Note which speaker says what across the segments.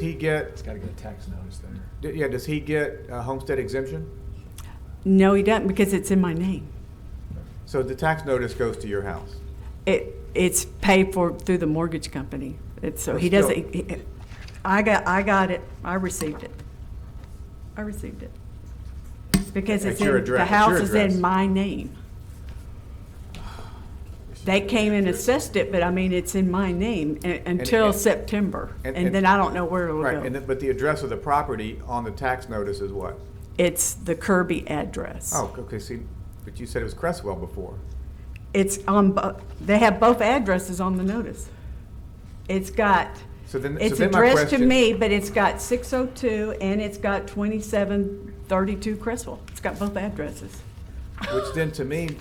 Speaker 1: he get,
Speaker 2: It's got to get a tax notice there.
Speaker 1: d- yeah, does he get a homestead exemption?
Speaker 3: No, he doesn't because it's in my name.
Speaker 1: So the tax notice goes to your house?
Speaker 3: It, it's paid for through the mortgage company. It's, so he
Speaker 1: But still-
Speaker 3: doesn't, he- he- I got, I got it, I received it. I received it. Because
Speaker 1: At
Speaker 3: it's
Speaker 1: your
Speaker 3: in,
Speaker 1: address-
Speaker 3: the
Speaker 1: at your
Speaker 3: house is
Speaker 1: address.
Speaker 3: in my name. They came and assessed it, but I mean, it's in my name u- until
Speaker 1: and-
Speaker 3: September.
Speaker 1: and-
Speaker 3: And
Speaker 1: and-
Speaker 3: then I don't know where it'll
Speaker 1: Right, and,
Speaker 3: go.
Speaker 1: the- but the address of the property on the tax notice is what?
Speaker 3: It's the Kirby address.
Speaker 1: Oh, okay, see, but you said it was Cresswell before.
Speaker 3: It's on, bo- they have both addresses on the notice. It's got,
Speaker 1: So then- so
Speaker 3: it's
Speaker 1: then my
Speaker 3: addressed to
Speaker 1: question-
Speaker 3: me, but it's got 602 and it's got 2732 Crestwell. It's got both addresses.
Speaker 1: Which then to me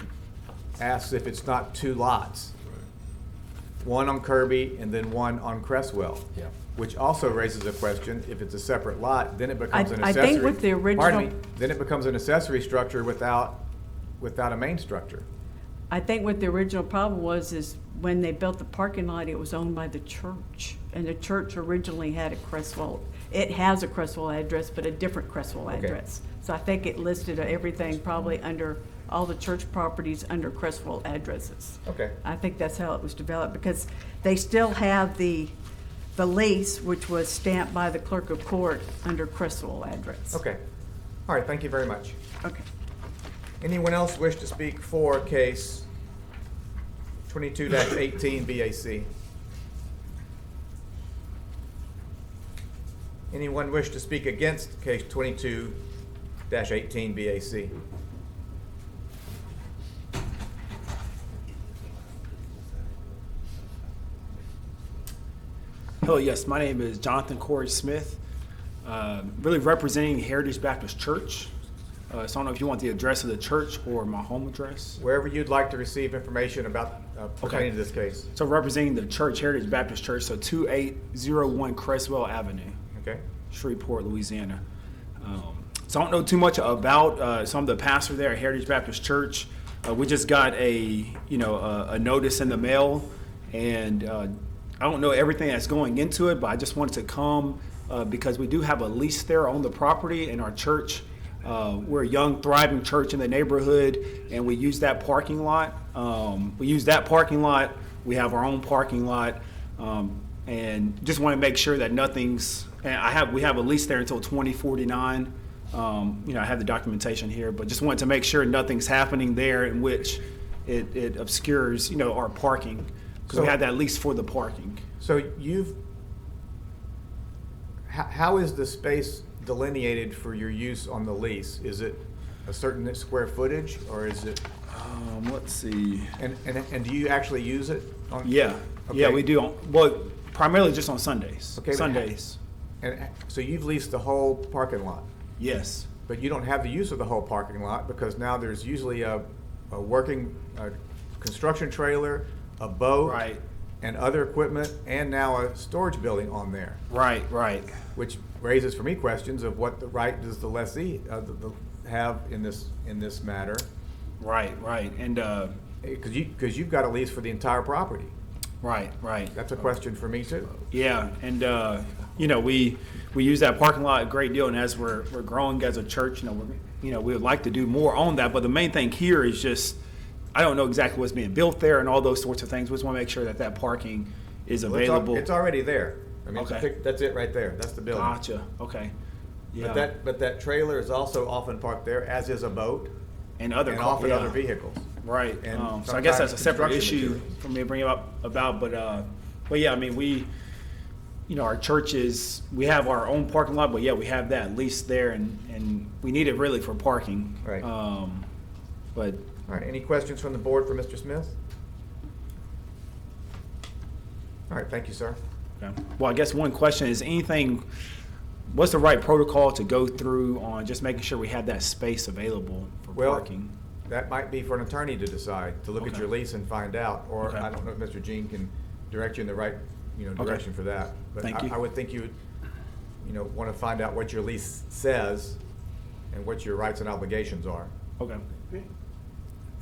Speaker 1: asks if it's not two lots. One on Kirby and then one on Cresswell.
Speaker 2: Yeah.
Speaker 1: Which also raises a question, if it's a separate lot, then it becomes
Speaker 3: I-
Speaker 1: an
Speaker 3: I
Speaker 1: accessory.
Speaker 3: think with the
Speaker 1: Pardon
Speaker 3: original-
Speaker 1: me, then it becomes an accessory structure without, without a main structure.
Speaker 3: I think what the original problem was is when they built the parking lot, it was owned by the church. And the church originally had a Crestwell, it has a Crestwell address, but a different Crestwell
Speaker 1: Okay.
Speaker 3: address. So I think it listed everything probably under, all the church properties under Crestwell addresses.
Speaker 1: Okay.
Speaker 3: I think that's how it was developed, because they still have the, the lease, which was stamped by the clerk of court under Crestwell address.
Speaker 1: Okay. All right, thank you very much.
Speaker 3: Okay.
Speaker 1: Anyone else wish to speak for case twenty-two eighteen BAC? Anyone wish to speak against case twenty-two eighteen BAC?
Speaker 4: Hello, yes, my name is Jonathan Corey Smith, uh, really representing Heritage Baptist Church. Uh, so I don't know if you want the address of the church or my home address.
Speaker 1: Wherever you'd like to receive information about uh, pertaining to this case,
Speaker 4: So representing the church, Heritage Baptist Church, so 2801 Cresswell Avenue,
Speaker 1: okay?
Speaker 4: Shreveport, Louisiana. Um, so I don't know too much about, uh, so I'm the pastor there at Heritage Baptist Church. Uh, we just got a, you know, a, a notice in the mail, and uh, I don't know everything that's going into it, but I just wanted to come uh, because we do have a lease there on the property in our church. Uh, we're a young, thriving church in the neighborhood, and we use that parking lot. Um, we use that parking lot. We have our own parking lot, um, and just want to make sure that nothing's. And I have we have a lease there until 2049. Um, you know, I have the documentation here, but just wanted to make sure nothing's happening there in which it, it obscures you know our parking because we
Speaker 1: So-
Speaker 4: have that lease for the parking.
Speaker 1: So you've, how, how is the space delineated for your use on the lease? Is it a certain square footage or is it,
Speaker 4: Um, let's see.
Speaker 1: and, and, and do you actually use it? on-
Speaker 4: Yeah, yeah,
Speaker 1: Okay.
Speaker 4: we do. On, well, primarily just on Sundays.
Speaker 1: Okay, but-
Speaker 4: Sundays.
Speaker 1: And, so you've leased the whole parking lot,
Speaker 4: Yes.
Speaker 1: but you don't have the use of the whole parking lot because now there's usually a, a working, uh construction trailer, a boat.
Speaker 4: Right.
Speaker 1: And other equipment and now a storage building on there.
Speaker 4: Right. Right.
Speaker 1: which raises for me questions of what the right does the lessee uh, the, the, have in this in this matter,
Speaker 4: Right. Right. And uh,
Speaker 1: because you because you've got a lease for the entire property.
Speaker 4: right. Right.
Speaker 1: That's a question for me too.
Speaker 4: Yeah, and uh, you know we we use that parking lot a great deal, and as we're we're growing as a church, you know we're, you know we would like to do more on that. But the main thing here is just I don't know exactly what's being built there and all those sorts of things. We just want to make sure that that parking is
Speaker 1: Well, it's al-
Speaker 4: available.
Speaker 1: It's, already there. I mean, it's a
Speaker 4: Okay.
Speaker 1: pic- that's it right there. That's the building.
Speaker 4: gotcha. Okay. Yeah.
Speaker 1: But that but that trailer is also often parked there, as is a boat
Speaker 4: and other
Speaker 1: and
Speaker 4: car-
Speaker 1: often
Speaker 4: yeah.
Speaker 1: other vehicles.
Speaker 4: Right.
Speaker 1: and
Speaker 4: um, so I guess that's a
Speaker 1: sometimes
Speaker 4: separate
Speaker 1: construction
Speaker 4: issue
Speaker 1: materials.
Speaker 4: for me to bring up about, but uh, but yeah, I mean we, you know, our church is we have our own parking lot, but yeah, we have that leased there, and and we need it really for parking.
Speaker 1: Right.
Speaker 4: Um, but
Speaker 1: All right. Any questions from the board for Mr. Smith? All right. Thank you, sir.
Speaker 4: okay. well, I guess one question is anything. What's the right protocol to go through on just making sure we have that space available for
Speaker 1: Well,
Speaker 4: parking?
Speaker 1: That might be for an attorney to decide, to look at
Speaker 4: Okay.
Speaker 1: your lease and find out, or
Speaker 4: Okay.
Speaker 1: I don't know if Mr. Jean can direct you in the right, you know,
Speaker 4: Okay.
Speaker 1: direction for that.
Speaker 4: Thank
Speaker 1: But
Speaker 4: you.
Speaker 1: I- I would think you would, you know, want to find out what your lease says and what your rights and obligations are.
Speaker 4: Okay.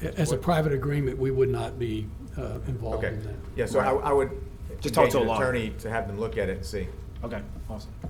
Speaker 5: As a private agreement, we would not be uh, involved
Speaker 1: Okay,
Speaker 5: in that.
Speaker 1: yeah, so I, I would
Speaker 4: Just talk
Speaker 1: engage
Speaker 4: to a
Speaker 1: an
Speaker 4: lawyer.
Speaker 1: attorney to have them look at it and see.
Speaker 4: Okay. Awesome.